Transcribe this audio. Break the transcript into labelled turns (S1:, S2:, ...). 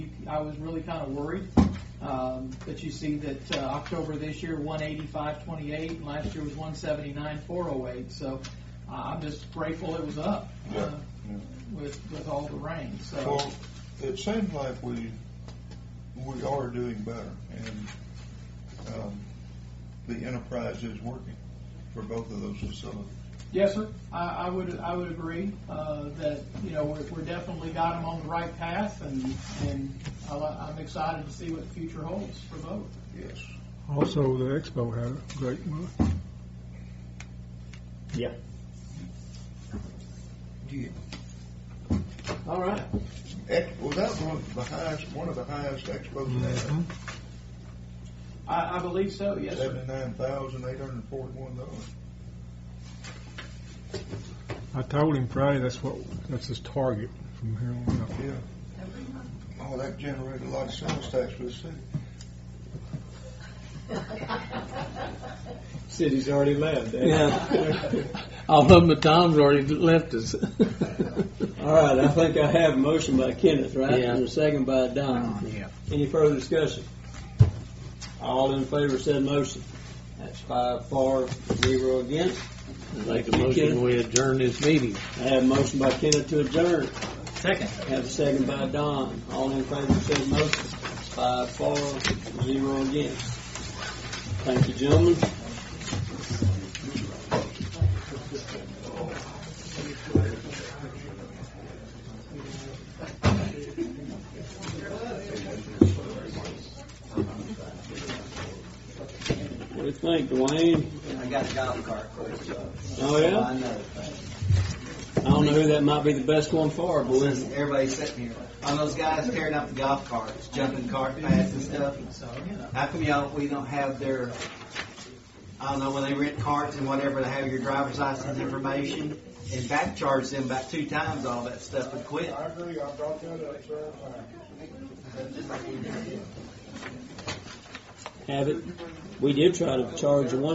S1: I was really kind of worried. Um, But you see that uh, October this year, 185.28, and last year was 179.408. So uh, I'm just grateful it was up uh,
S2: Yeah, yeah.
S1: with, with all the rain, so.
S2: Well, it seems like we, we are doing better, and um, the enterprise is working for both of those facilities.
S1: Yes, sir. I, I would, I would agree, uh, that, you know, we're, we're definitely got them on the right path and, and I li- I'm excited to see what the future holds for both.
S2: Yes.
S3: Also, the expo had a great month.
S4: Yeah. All right.
S2: Ex- Was that one of the highest, one of the highest expos?
S3: Mhm.
S1: I, I believe so, yes, sir.
S2: Seventy-nine thousand, eight hundred and forty-one dollars.
S3: I told him Friday that's what that's his target from here on out.
S2: Yeah. Oh, that generated a lot of sales tax for the city.
S4: City's already left. eh?
S5: Yeah. All of them, Tom's already left us.
S4: All right, I think I have a motion by Kenneth, right?
S5: Yeah.
S4: And a second by Don.
S5: Yeah.
S4: Any further discussion? All in favor said motion. That's five for, zero against.
S5: I'd Make a motion, we adjourn this meeting.
S4: I have a motion by Kenneth to adjourn.
S5: Second.
S4: Have a second by Don. All in favor said motion. Five for, zero against. Thank you, gentlemen. What do you think, Dwayne?
S6: I got a golf cart for you.
S4: Oh, yeah?
S6: I know.
S4: I don't know who that might be the best one for, but
S6: Listen, everybody's sitting here. On those guys tearing up the golf carts, jumping cart paths and stuff. How come y'all, we don't have their, I don't know, when they rent carts and whatever, to have your driver's license information and back charge them about two times all that stuff and quit.
S4: have it. We did try to charge one.